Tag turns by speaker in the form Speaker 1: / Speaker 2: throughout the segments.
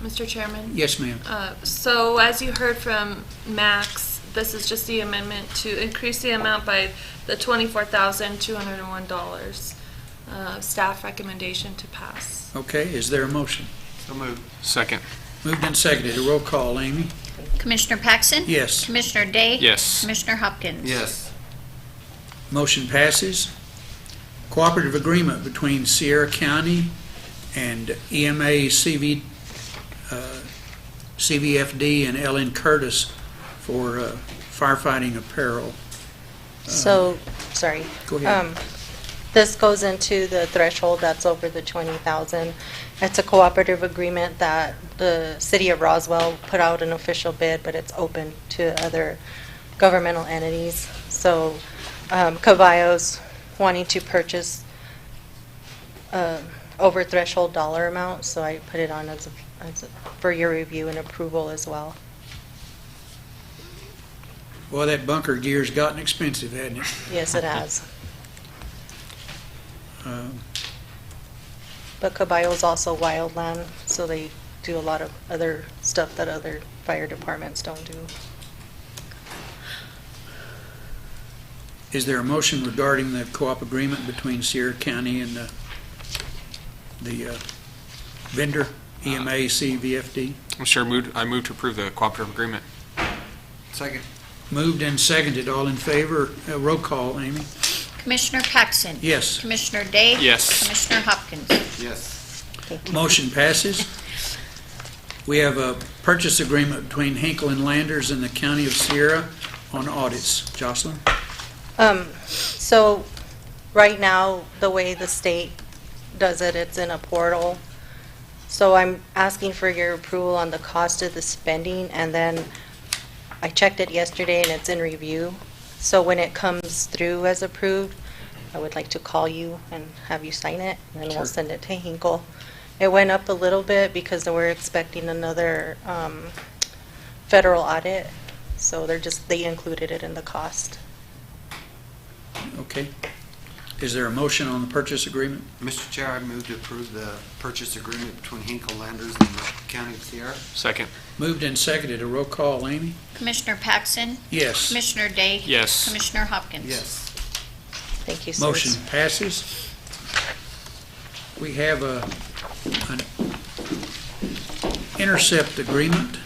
Speaker 1: Mr. Chairman?
Speaker 2: Yes, ma'am.
Speaker 1: Uh, So as you heard from Max, this is just the amendment to increase the amount by the twenty-four thousand, two hundred and one dollars. uh, Staff recommendation to pass.
Speaker 2: Okay, is there a motion?
Speaker 3: So moved.
Speaker 4: Second.
Speaker 2: Moved and seconded, a roll call, Amy?
Speaker 5: Commissioner Paxson?
Speaker 2: Yes,
Speaker 5: Commissioner Day?
Speaker 4: Yes.
Speaker 5: Commissioner Hopkins?
Speaker 3: Yes.
Speaker 2: motion passes. Cooperative agreement between Sierra County and E EMA CV, uh, CVFD and Ellen Curtis for uh, firefighting apparel.
Speaker 6: So, sorry.
Speaker 2: Go ahead.
Speaker 6: Um, This goes into the threshold that's over the 20,000. It's a cooperative agreement that the city of Roswell put out an official bid, but it's open to other governmental entities. So um, Cavallo's wanting to purchase uh, over threshold dollar amount, so I put it on as, a- as, a- for your review and approval as well.
Speaker 2: Boy, that bunker gear's gotten expensive, hasn't it?
Speaker 6: Yes, it has.
Speaker 2: Uh,
Speaker 6: But Caballo is also wildland, so they do a lot of other stuff that other fire departments don't do.
Speaker 2: Is there a motion regarding the co-op agreement between Sierra County and the, the uh, vendor, E EMA CVFD?
Speaker 4: I'm sure moved, I moved to approve the cooperative agreement.
Speaker 3: Second.
Speaker 2: Moved and seconded, all in favor, Uh, roll call, Amy?
Speaker 5: Commissioner Paxson?
Speaker 2: Yes,
Speaker 5: Commissioner Day?
Speaker 4: Yes.
Speaker 5: Commissioner Hopkins?
Speaker 3: Yes.
Speaker 2: motion passes. We have a purchase agreement between Hinkle and Landers and the County of Sierra on audits. Jocelyn?
Speaker 6: Um, so, right now, the way the state does it, it's in a portal. So I'm asking for your approval on the cost of the spending, and then I checked it yesterday and it's in review. So when it comes through as approved, I would like to call you and have you sign it, and then we'll send it to Hinkle. It went up a little bit because we're expecting another, um, federal audit, so they're just, they included it in the cost.
Speaker 2: Okay. Is there a motion on the purchase agreement?
Speaker 3: Mr. Chair, I move to approve the purchase agreement between Hinkle Landers and the County of Sierra.
Speaker 4: Second.
Speaker 2: Moved and seconded, a roll call, Amy?
Speaker 5: Commissioner Paxson?
Speaker 2: Yes.
Speaker 5: Commissioner Day?
Speaker 4: Yes.
Speaker 5: Commissioner Hopkins?
Speaker 3: Yes.
Speaker 6: Thank you, sirs.
Speaker 2: Motion passes. We have a, an intercept agreement.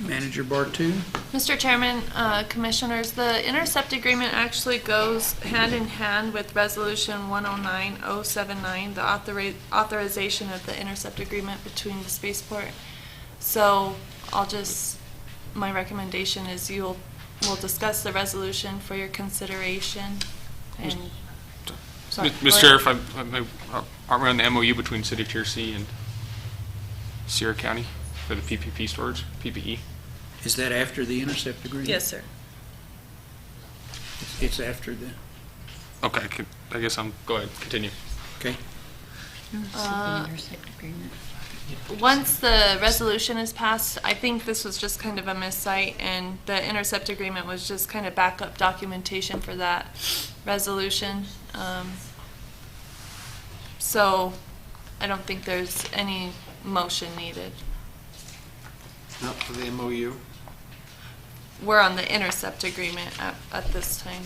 Speaker 2: Manager Bartu,
Speaker 1: Mr. Chairman, uh, Commissioners, the intercept agreement actually goes hand in hand with Resolution 109079, the authori- authorization of the intercept agreement between the spaceport. So I'll just, my recommendation is you'll, we'll discuss the resolution for your consideration and. Sorry, go
Speaker 4: Mr.
Speaker 1: ahead.
Speaker 4: Sheriff, I'm- I'm- I'm- aren't we on the MOU between City of Searcy and Sierra County for the PPP storage, E. PPE?
Speaker 2: is that after the intercept agreement?
Speaker 1: Yes, sir.
Speaker 2: It's after the,
Speaker 4: Okay, I could- I guess I'm, go ahead, continue.
Speaker 2: okay.
Speaker 1: Uh, Once the resolution is passed, I think this was just kind of a miscite, and the intercept agreement was just kind of backup documentation for that resolution. Um, So I don't think there's any motion needed.
Speaker 3: Not for the MOU.
Speaker 1: We're on the intercept agreement at, at this time,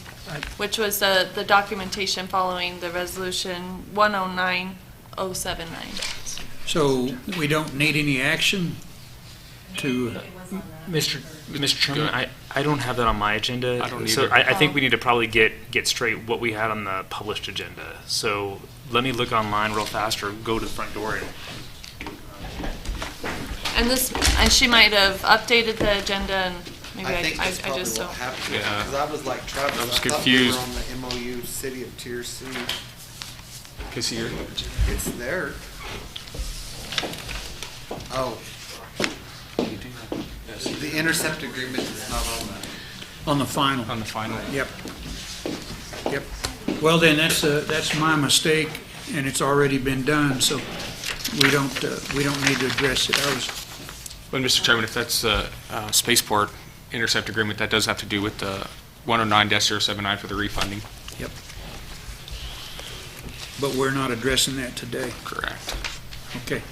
Speaker 1: which was the, the documentation following the resolution 109079.
Speaker 2: So we don't need any action to,
Speaker 7: Mr. Mr. Chairman,
Speaker 4: ahead.
Speaker 7: I, I don't have that on my agenda.
Speaker 4: I don't
Speaker 7: So
Speaker 4: either.
Speaker 7: I, I think
Speaker 1: Oh.
Speaker 7: we need to probably get, get straight what we had on the published agenda. So let me look online real fast or go to the front door and
Speaker 1: And this, and she might have updated the agenda and maybe
Speaker 3: I
Speaker 1: I,
Speaker 3: think
Speaker 1: I
Speaker 3: that's
Speaker 1: I
Speaker 3: probably
Speaker 1: just
Speaker 3: what
Speaker 1: don't.
Speaker 3: happened.
Speaker 4: Yeah.
Speaker 3: Because I was like Travis.
Speaker 4: I was confused.
Speaker 3: thought we were on the MOU, City of Tier C.
Speaker 4: Can see your-
Speaker 3: It's there. Oh. The intercept agreement is not on that.
Speaker 2: on the final?
Speaker 4: on the final.
Speaker 2: Yep. Yep. Well, then, that's, uh, that's my mistake, and it's already been done, so we don't, uh, we don't need to address it. I was
Speaker 4: But, Mr. Chairman, if that's uh, uh, Spaceport intercept agreement, that does have to do with the 109-079 for the refunding.
Speaker 2: Yep. But we're not addressing that today.
Speaker 4: Correct.
Speaker 2: Okay.